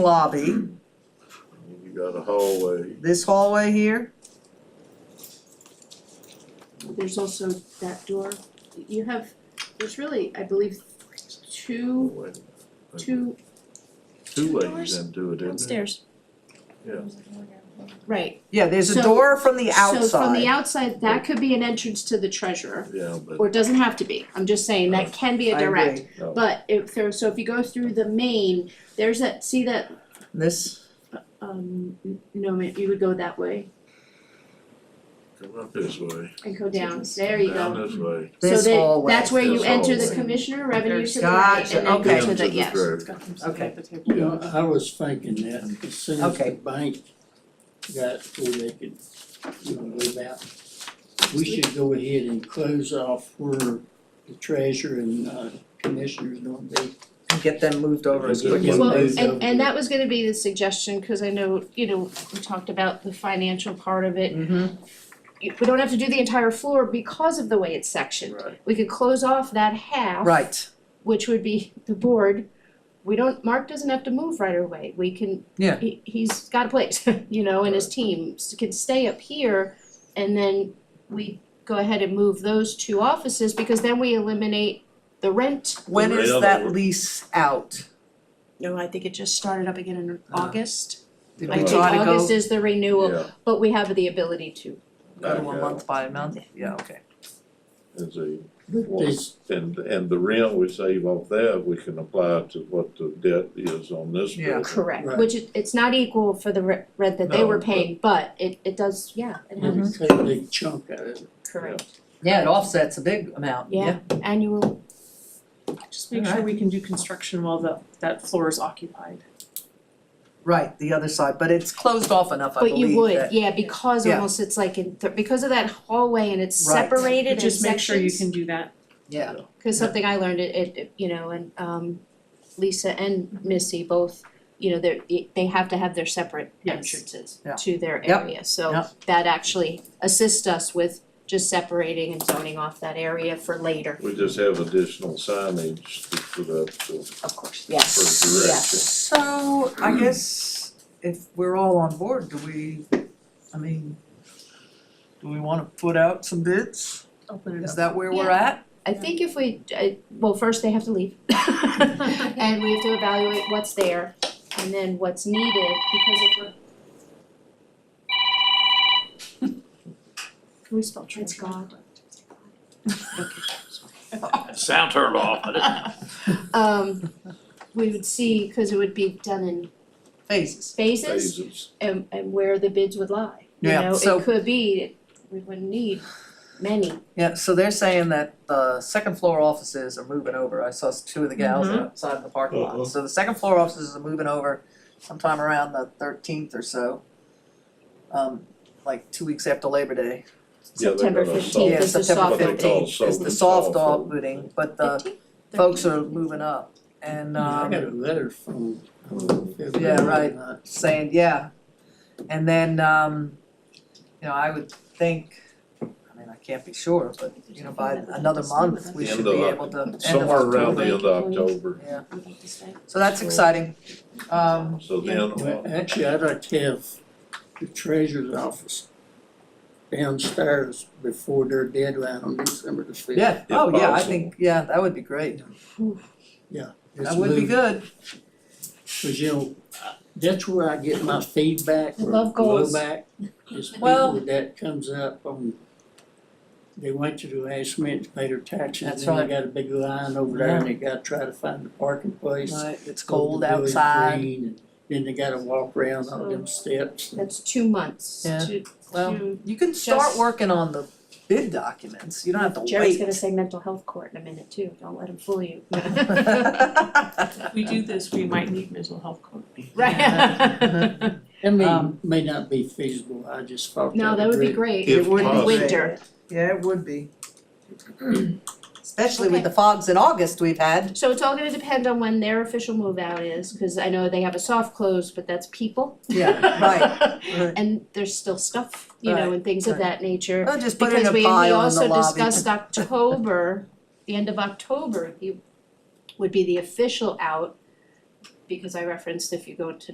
lobby, You got a hallway, this hallway here, There's also that door, you have, there's really, I believe, two, hallway, two, two ways doors into it, isn't it? Downstairs. right. yeah, there's a So- door from the So from the outside, outside, that could be an entrance to the treasurer, Yeah, but or it doesn't have to be, I'm just saying, that can be a I direct. agree, Oh. But if there, so if you go through the main, there's that, see that, this, um, n- no, ma- you would go that way come up this way, and go down, there you down go. this way. this So that, hallway. that's where you This enter the hallway. commissioner, revenue There's- to the right, Gotcha, and then okay. go to the, yes. Into the Okay. You know, I was thinking that as soon as Okay. the bank got to where they could, you know, move out, we should go ahead and close off where the treasurer and uh commissioner's gonna be. And Get them moved over as Get them quickly as moved Well, possible. Those and of and the- that was gonna be the suggestion, cause I know, you know, we talked about the financial part of it. Mhm. You- We don't have to do the entire floor because of the way it's sectioned. Right. We could close off that half. Right, Which would be the board. We don't, Mark doesn't have to move right away, we can. Yeah. He he's got a place, you know, and his team s- can stay up here and then we go ahead and move those two offices because then we eliminate the rent. when Right is on that over. lease out? No, I think it just started up again in Ah. August. Did I we think try to August go, is the renewal, Yeah, but we have the ability to. go to a Okay. month by month, yeah, okay. As a, This, and, and the rent we save off that, we can apply to what the debt is on this Yeah. building. Correct, Right. which it, it's not equal for the re- rent that they No, were but- paying, but it, it does, yeah, Mm-hmm. it they happens, would take a big chunk out of it. correct, Yeah, it offsets a big amount, yeah. yeah, annual, Just make sure Alright. we can do construction while the, that floor is occupied. Right, the other side, but it's closed off enough, I but you believe would, that- yeah, because Yeah. almost it's like in, th- because of that hallway and it's Right. But separated in just make sure you sections. can do that. Yeah, Cause something I learned, it, it- it, you know, and, um, Lisa and Missy both, you know, they're, it- they have to have their separate Yes. entrances Yeah. to their Yep. area, so Yep. that actually assists us with just separating and zoning off that area for later. We just have additional signage to put up to, Of course, For yes, direction. yes. so I guess if we're all on board, do we, I mean, do we wanna put out some bids? Open Is that where we're Yeah. at? I think if we, I, well, first they have to leave. And we have to evaluate what's there and then what's needed because if we're. Can we spell trans? God. Sound turned off. Um, we would see, cause it would be done in Phases. phases phases. and and where the bids would lie. You Yeah, know, so- it could be, we wouldn't need many. Yeah, so they're saying that the second floor offices are moving over, I saw s- two of the gals Mm-hmm. Mhm. outside of the parking Uh-huh. lot, so the second floor offices are moving over sometime around the thirteenth or so. Um, like two weeks after Labor Day, Yeah, they September got a 15th soft- is the September what they soft fifteenth. call opening. is the and soft soft opening, but the folks are moving up and I um got a letter from, uh, I don't know if it was Yeah, or right. not. saying, yeah. And then um, you know, I would think, I mean, I can't be sure, but you know, by another month, we should End be of Oc- able to, end of Somewhere around October. the end of October, Yeah, so that's exciting. Um, so then. Well, actually, I'd like to have the treasurer's office downstairs before their deadline on December the fifth. Yeah, Yeah, oh yeah, I possible. think, yeah, that would be great, Let's that would be move good, Cause you know, that's where I get my feedback or Love goals. blowback, is Well- people that comes up on. They went to the last minute to pay their That's taxes, and right. they got a big line over there and they gotta try to find a parking place. Right, it's over cold the village outside, green, and Then they gotta walk around all them steps. That's two months Yeah. to well, to- you can start Just- working on the bid documents, you don't have to wait. Jerry's gonna say mental health court in a minute too, don't let him fool you. If we do this, we might need mental health court. Right. I mean, Um, may not be feasible, I just thought No, that would be great. If In the possible. winter, Yeah, it would be. Especially with the fogs in August we've had, so it's all gonna depend on when their official move out is, cause I know they have a soft close, but that's people. yeah, right. right. And there's still stuff, you know, and things of Right, that nature. I'll just put it in a Because we, and we pile in the lobby. also discussed October, the end of October, you, would be the official out. Because I referenced if you go to